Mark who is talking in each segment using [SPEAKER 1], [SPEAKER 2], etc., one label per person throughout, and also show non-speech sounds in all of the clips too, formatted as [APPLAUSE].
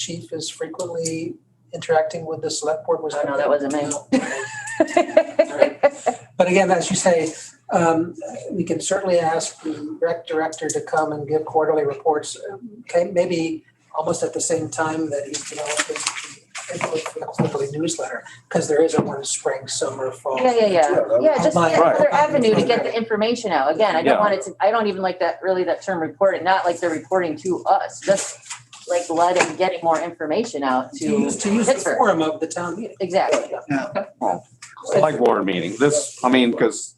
[SPEAKER 1] chief is frequently interacting with the select board? Was
[SPEAKER 2] Oh, no, that wasn't me.
[SPEAKER 1] No. But again, as you say, um, we can certainly ask the rec director to come and give quarterly reports. um, Okay, maybe almost at the same time that he's developing the input for the quarterly newsletter, because there isn't one spring, summer, fall.
[SPEAKER 2] Yeah, yeah, yeah. Yeah, just
[SPEAKER 1] Right.
[SPEAKER 2] another avenue to get the information out. Again, I don't
[SPEAKER 3] Yeah.
[SPEAKER 2] want it to, I don't even like that, really that term report, it, not like they're reporting to us, just like letting, getting more information out
[SPEAKER 1] To use, to
[SPEAKER 2] to
[SPEAKER 1] use the
[SPEAKER 2] Pittsburgh.
[SPEAKER 1] forum of the town meeting.
[SPEAKER 2] Exactly.
[SPEAKER 3] [LAUGHS] Select board meeting, this, I mean, because,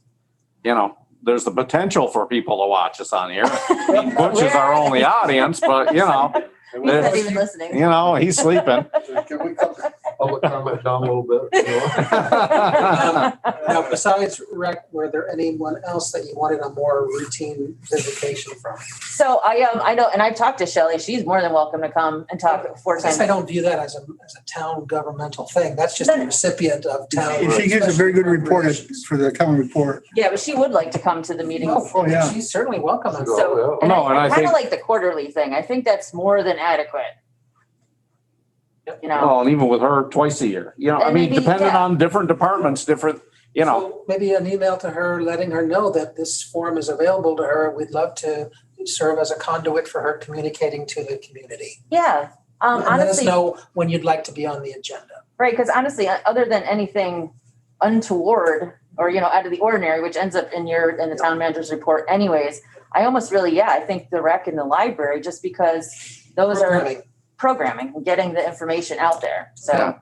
[SPEAKER 3] you know, there's the potential for people to watch us on here. I mean, Butch is our only audience, but you know,
[SPEAKER 4] Can
[SPEAKER 2] He's not
[SPEAKER 4] we-
[SPEAKER 2] even
[SPEAKER 3] you
[SPEAKER 2] listening.
[SPEAKER 3] know, he's sleeping.
[SPEAKER 4] can we cut the public comment down a little bit? you
[SPEAKER 3] [LAUGHS] I
[SPEAKER 1] Now,
[SPEAKER 4] know?
[SPEAKER 1] besides rec, were there anyone else that you wanted a more routine visitation from?
[SPEAKER 2] [LAUGHS] So I, um, I know, and I've talked to Shelley, she's more than welcome to come and talk four
[SPEAKER 1] I guess I
[SPEAKER 2] times.
[SPEAKER 1] don't view that as a, as a town governmental thing. That's just
[SPEAKER 2] No.
[SPEAKER 1] a recipient of town.
[SPEAKER 5] She gives a very good report as- for the common report.
[SPEAKER 2] Yeah, but she would like to come to the meetings.
[SPEAKER 5] Oh, yeah.
[SPEAKER 1] She's certainly welcome.
[SPEAKER 4] Go,
[SPEAKER 2] So-
[SPEAKER 4] yeah.
[SPEAKER 3] No, and I
[SPEAKER 2] Kind of
[SPEAKER 3] think-
[SPEAKER 2] like the quarterly thing. I think that's more than adequate.
[SPEAKER 1] Yep.
[SPEAKER 2] You know,
[SPEAKER 3] Well, and even with her twice a year, you know, I
[SPEAKER 2] And
[SPEAKER 3] mean,
[SPEAKER 2] maybe,
[SPEAKER 3] depending
[SPEAKER 2] yeah.
[SPEAKER 3] on different departments, different, you know,
[SPEAKER 1] So Maybe an email to her, letting her know that this forum is available to her. We'd love to serve as a conduit for her communicating to the community.
[SPEAKER 2] yeah. Um,
[SPEAKER 1] And let us
[SPEAKER 2] honestly,
[SPEAKER 1] know when you'd like to be on the agenda.
[SPEAKER 2] Right, because honestly, o- other than anything untoward or, you know, out of the ordinary, which ends up in your, in the town manager's report anyways, I almost really, yeah, I think the rec and the library, just because those are
[SPEAKER 1] Programming.
[SPEAKER 2] programming, and getting the information out there, so.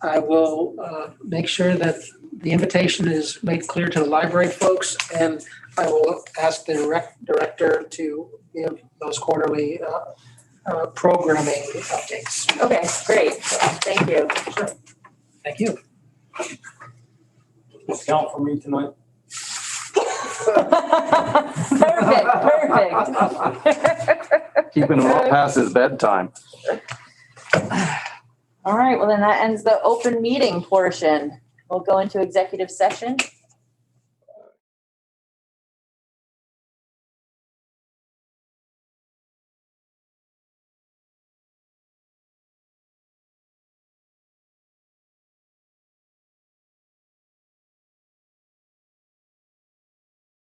[SPEAKER 1] I will uh, make sure that the invitation is made clear to the library folks, and I will ask the rec director to give those quarterly uh, uh, programming updates.
[SPEAKER 2] Okay, great, thank you. [LAUGHS]
[SPEAKER 1] Thank you.
[SPEAKER 6] Discount for me tonight?
[SPEAKER 4] [LAUGHS]
[SPEAKER 2] [LAUGHS] Perfect, perfect.
[SPEAKER 3] keeping him up past his bedtime.
[SPEAKER 2] All right, well then that ends the open meeting portion. We'll go into executive session.